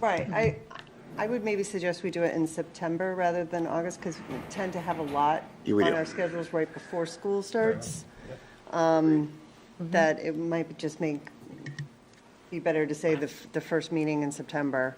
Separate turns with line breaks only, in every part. Right, I, I would maybe suggest we do it in September rather than August, because we tend to have a lot
Yeah, we
on
do.
our schedules right before school starts. Um, That it might be- just make, be better to say the, f- the first meeting in September,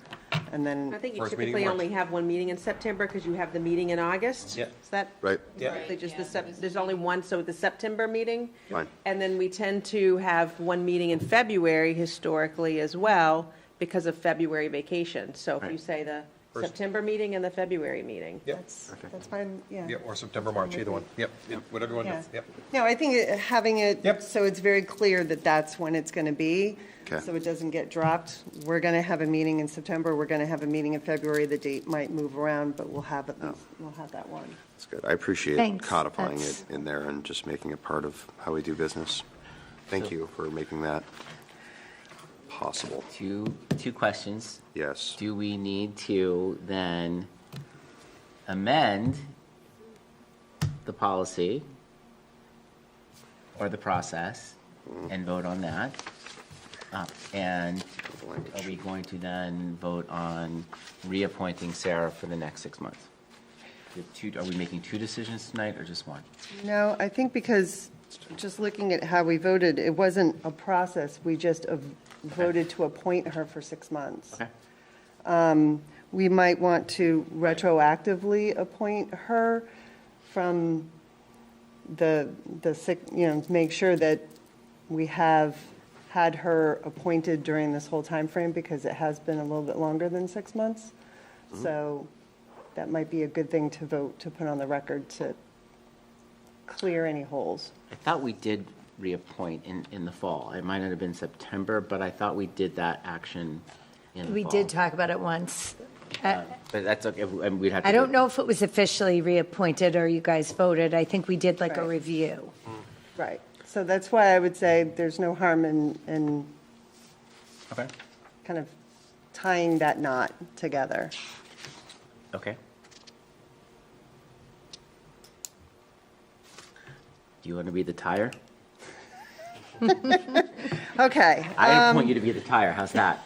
and
I
then,
think you
First meeting in
typically
March.
only have one meeting in September because you have the meeting in August.
Yeah.
Is that?
Right.
Yeah.
They just, the Sep- there's only one, so the September meeting.
Fine.
And then we tend to have one meeting in February historically as well because of February vacation. So if you
Right.
say the
First-
September meeting and the February meeting.
Yep,
that's, that's fine, yeah.
yep, or September, March, either one, yep, yep, whatever you want,
Yeah.
to do. yep.
No, I think it- having it.
Yep.
So it's very clear that that's when it's going to be.
Okay.
So it doesn't get dropped. We're going to have a meeting in September, we're going to have a meeting in February. The date might move around, but we'll have, at least- we'll have that one.
That's good. I appreciate
Thanks.
codifying it
That's-
in there and just making it part of how we do business. Thank you for making that possible.
Two, two questions.
Yes.
Do we need to then amend the policy or the process and vote on that? Uh, And are we going to then vote on reappointing Sarah for the next six months? The two- Are we making two decisions tonight or just one?
No, I think because, just looking at how we voted, it wasn't a process. We just uh, voted to appoint her for six months.
Okay.
we might want to retroactively appoint her from the, the, sick- you know, to make sure that we have had her appointed during this whole time frame because it has been a little bit longer than six months. So that might be a good thing to vote, to put on the record to clear any holes.
I thought we did reappoint in, in the fall. It might not have been September, but I thought we did that action in the fall.
We
Oh.
did talk about it once. I
But that's okay, and we'd have to.
I don't
do-
know if it was officially reappointed or you guys voted. I think we did like a
Right.
review.
Right. So that's why I would say there's no harm in, in
Okay,
kind of tying that knot together.
okay. Do you want to be the tire?
Okay.
I
Um,
appoint you to be the tire, how's that?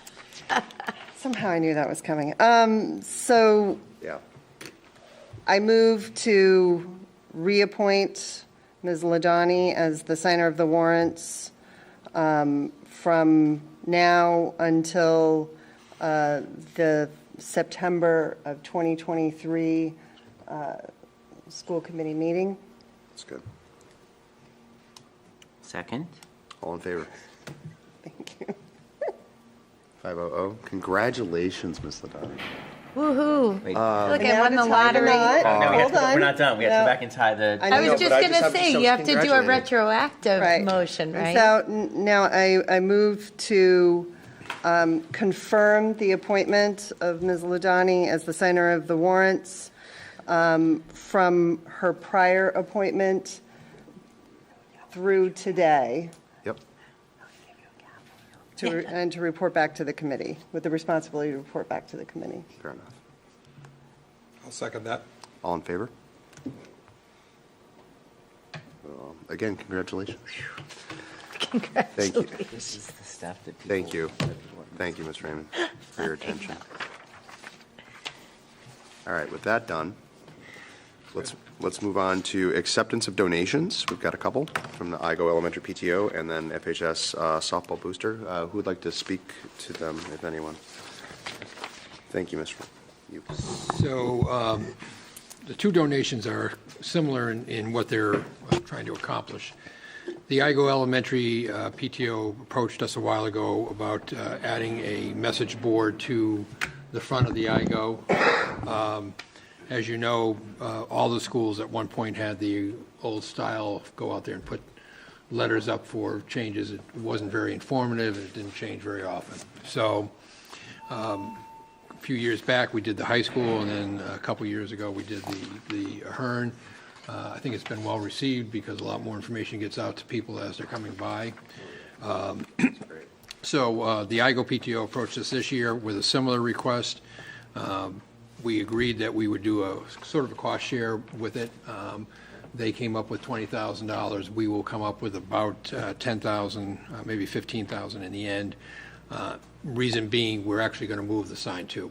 Somehow I knew that was coming. Um, so
Yeah.
I move to reappoint Ms. Ladani as the signer of the warrants um, from now until uh, the September of 2023 uh, school committee meeting.
That's good.
Second?
All in favor?
Thank you.
500. Congratulations, Ms. Ladani.
Woohoo.
Wait,
Uh,
Look,
And
I won
now
the
to tie
lottery.
knot.
no, we have
Hold
to-
on.
We're not done, we have to
No.
go back and tie the.
I
I
know,
was
but I
just
just
going to
have to
say, you have to do a
self-congratulate.
retroactive
Right.
motion,
And
right?
So n- now I, I move to um, confirm the appointment of Ms. Ladani as the signer of the warrants um, from her prior appointment through today,
Yep.
to re- and to report back to the committee, with the responsibility to report back to the committee.
Fair enough.
I'll second that.
All in favor? Um, Again, congratulations. Thank you.
This is the stuff that people.
Thank you. Thank you, Ms. Raymond, for your attention. All right, with that done, let's, let's move on to acceptance of donations. We've got a couple from the IGO Elementary PTO and then FHS uh, softball booster. Uh, Who would like to speak to them, if anyone? Thank you, Ms. You.
So um, the two donations are similar in- in what they're uh, trying to accomplish. The Igo Elementary uh, PTO approached us a while ago about uh, adding a message board to the front of the Igo. Um, As you know, uh, all the schools at one point had the old style, of go out there and put letters up for changes. It wasn't very informative, it didn't change very often. So a few years back, we did the high school, and then a couple years ago, we did the, the Ahern. Uh, I think it's been well-received because a lot more information gets out to people as they're coming by. Um, So uh, the IGO PTO approached us this year with a similar request. Um, We agreed that we would do a sort of a cost share with it. Um, They came up with $20,000. We will come up with about uh, $10,000, uh, maybe $15,000 in the end. Uh, reason being, we're actually going to move the sign to.